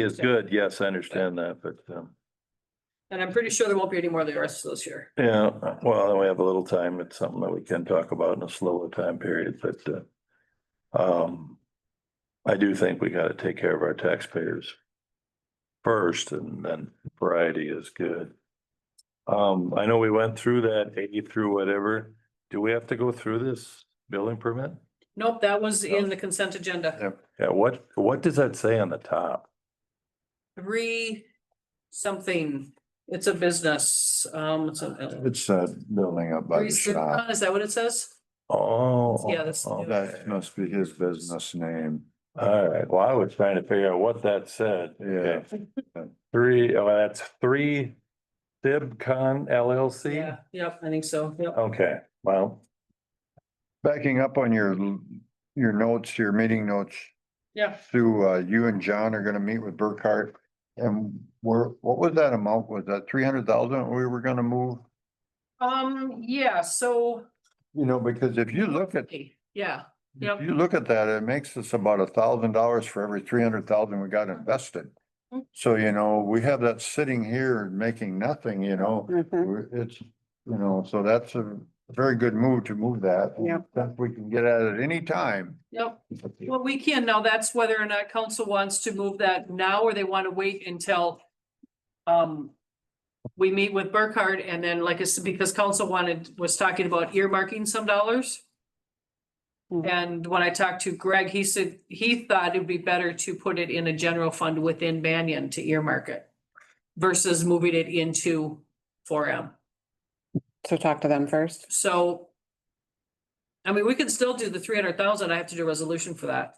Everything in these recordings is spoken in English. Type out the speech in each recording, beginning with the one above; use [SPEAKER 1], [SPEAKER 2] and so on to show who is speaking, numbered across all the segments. [SPEAKER 1] is good. Yes, I understand that, but, um,
[SPEAKER 2] And I'm pretty sure there won't be any more the rest of this year.
[SPEAKER 1] yeah, well, then we have a little time. It's something that we can talk about in a slower time period, but, uh, um, I do think we gotta take care of our taxpayers first and then variety is good. Um, I know we went through that A through whatever. Do we have to go through this building permit?
[SPEAKER 2] Nope, that was in the consent agenda.
[SPEAKER 1] Yeah, what, what does that say on the top?
[SPEAKER 2] Three something, it's a business, um, it's a.
[SPEAKER 3] It's uh building up by
[SPEAKER 2] Three
[SPEAKER 3] the shop.
[SPEAKER 2] Is that what it says?
[SPEAKER 1] Oh.
[SPEAKER 2] Yeah, that's-
[SPEAKER 1] oh,
[SPEAKER 3] That must be his business name.
[SPEAKER 1] All right, well, I was trying to figure out what that said.
[SPEAKER 3] Yeah.
[SPEAKER 1] Three, oh, that's three Dibcon LLC?
[SPEAKER 2] Yeah, yep, I think so, yep.
[SPEAKER 1] Okay, well,
[SPEAKER 3] Backing up on your, your notes, your meeting notes,
[SPEAKER 2] Yeah,
[SPEAKER 3] Sue, uh, you and John are gonna meet with Burkhart. And where, what was that amount? Was that three hundred thousand we were gonna move?
[SPEAKER 2] um, yeah, so,
[SPEAKER 3] You know, because if you look at,
[SPEAKER 2] yeah,
[SPEAKER 3] if
[SPEAKER 2] Yep.
[SPEAKER 3] you look at that, it makes us about a thousand dollars for every three hundred thousand we got
[SPEAKER 2] Mm-hmm.
[SPEAKER 3] invested.
[SPEAKER 2] Mhm.
[SPEAKER 3] So, you know, we have that sitting here and making nothing, you know, We're-
[SPEAKER 2] Mm-hmm.
[SPEAKER 3] It's, you know, so that's a very good move to move that.
[SPEAKER 2] Yep.
[SPEAKER 3] That we can get at it any time.
[SPEAKER 2] yep. Well, we can now. That's whether or not council wants to move that now or they want to wait until um we meet with Burkhardt and then like I said, because council wanted, was talking about earmarking some dollars.
[SPEAKER 4] Mhm.
[SPEAKER 2] And when I talked to Greg, he said he thought it'd be better to put it in a general fund within Banyan to earmark it versus moving it into four M.
[SPEAKER 4] So talk to them first.
[SPEAKER 2] So I mean, we can still do the three hundred thousand. I have to do a resolution for that.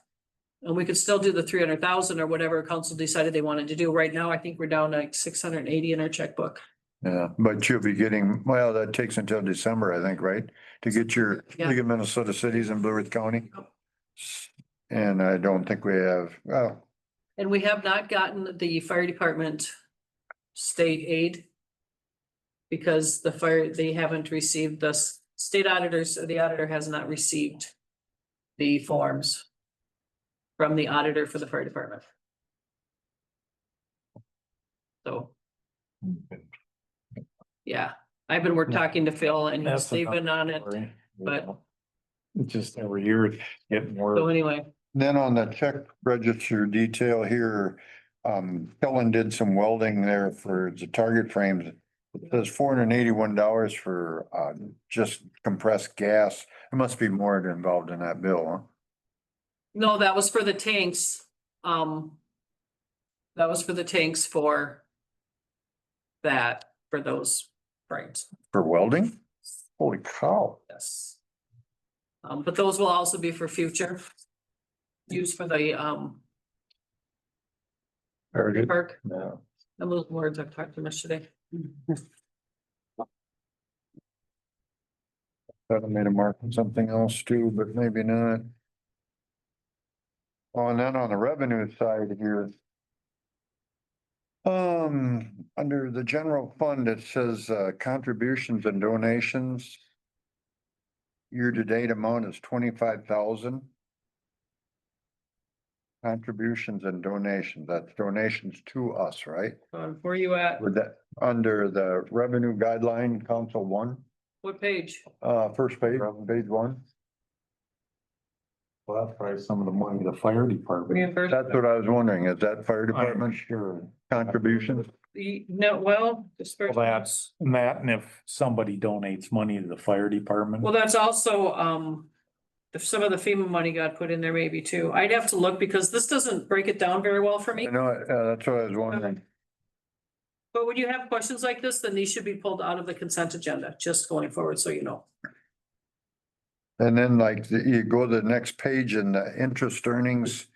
[SPEAKER 2] And we could still do the three hundred thousand or whatever council decided they wanted to do. Right now, I think we're down like six hundred and eighty in our checkbook.
[SPEAKER 3] Yeah, but you'll be getting, well, that takes until December, I think, right? To get your
[SPEAKER 2] Yeah.
[SPEAKER 3] League of Minnesota Cities in Blue Earth County.
[SPEAKER 2] Yep.
[SPEAKER 3] And I don't think we have, well,
[SPEAKER 2] And we have not gotten the fire department state aid because the fire, they haven't received the s- state auditors, the auditor has not received the forms from the auditor for the fire department. So. Yeah, I've been, we're talking to Phil and he's,
[SPEAKER 5] That's
[SPEAKER 2] they've been on it.
[SPEAKER 5] Sorry.
[SPEAKER 2] but-
[SPEAKER 5] It's Just every year it's getting
[SPEAKER 2] So
[SPEAKER 5] worse.
[SPEAKER 2] anyway,
[SPEAKER 3] then on the check register detail here, um, Helen did some welding there for the target frames. It says four hundred and eighty-one dollars for, uh, just compressed gas. There must be more involved in that bill, huh?
[SPEAKER 2] no, that was for the tanks. Um, that was for the tanks for that, for those frames.
[SPEAKER 3] For welding? Holy cow.
[SPEAKER 2] Yes. Um, but those will also be for future use for the, um,
[SPEAKER 1] very good.
[SPEAKER 2] park.
[SPEAKER 1] Yeah.
[SPEAKER 2] And those words I've talked to him yesterday.
[SPEAKER 3] Thought I made a mark on something else too, but maybe not. Oh, and then on the revenue side here. Um, under the general fund, it says uh, contributions and donations. Year-to-date amount is twenty-five thousand. Contributions and donations, that's donations to us, right?
[SPEAKER 2] Um, where you at?
[SPEAKER 3] Would that, under the revenue guideline, council one?
[SPEAKER 2] What page?
[SPEAKER 3] Uh, first page, page one.
[SPEAKER 5] Well, that's probably some of the money the fire department.
[SPEAKER 2] Reimbursement?
[SPEAKER 3] That's what I was wondering. Is that fire
[SPEAKER 5] I'm
[SPEAKER 3] department
[SPEAKER 5] sure.
[SPEAKER 3] contribution?
[SPEAKER 2] The- No, well,
[SPEAKER 5] Well,
[SPEAKER 2] dispersed.
[SPEAKER 5] That's, and that, and if somebody donates money to the fire department.
[SPEAKER 2] Well, that's also, um, if some of the FEMA money got put in there maybe too. I'd have to look because this doesn't break it down very well for
[SPEAKER 3] I
[SPEAKER 2] me.
[SPEAKER 3] know, uh, that's what I was wondering.
[SPEAKER 2] But when you have questions like this, then these should be pulled out of the consent agenda, just going forward, so you know.
[SPEAKER 3] And then like, the- you go to the next page and the interest earnings,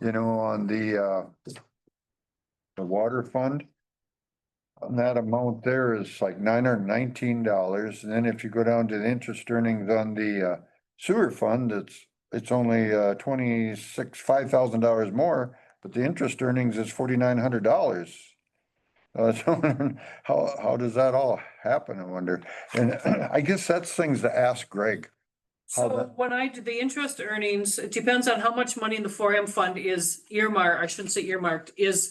[SPEAKER 3] you know, on the, uh, the water fund. And that amount there is like nine hundred nineteen dollars. And then if you go down to the interest earnings on the, uh, sewer fund, it's, it's only, uh, twenty-six, five thousand dollars more, but the interest earnings is forty-nine hundred dollars. Uh, so how, how does that all happen, I wonder? And I guess that's things to ask Greg. How
[SPEAKER 2] So
[SPEAKER 3] that-
[SPEAKER 2] when I do the interest earnings, it depends on how much money in the four M fund is earmarked, I shouldn't say earmarked, is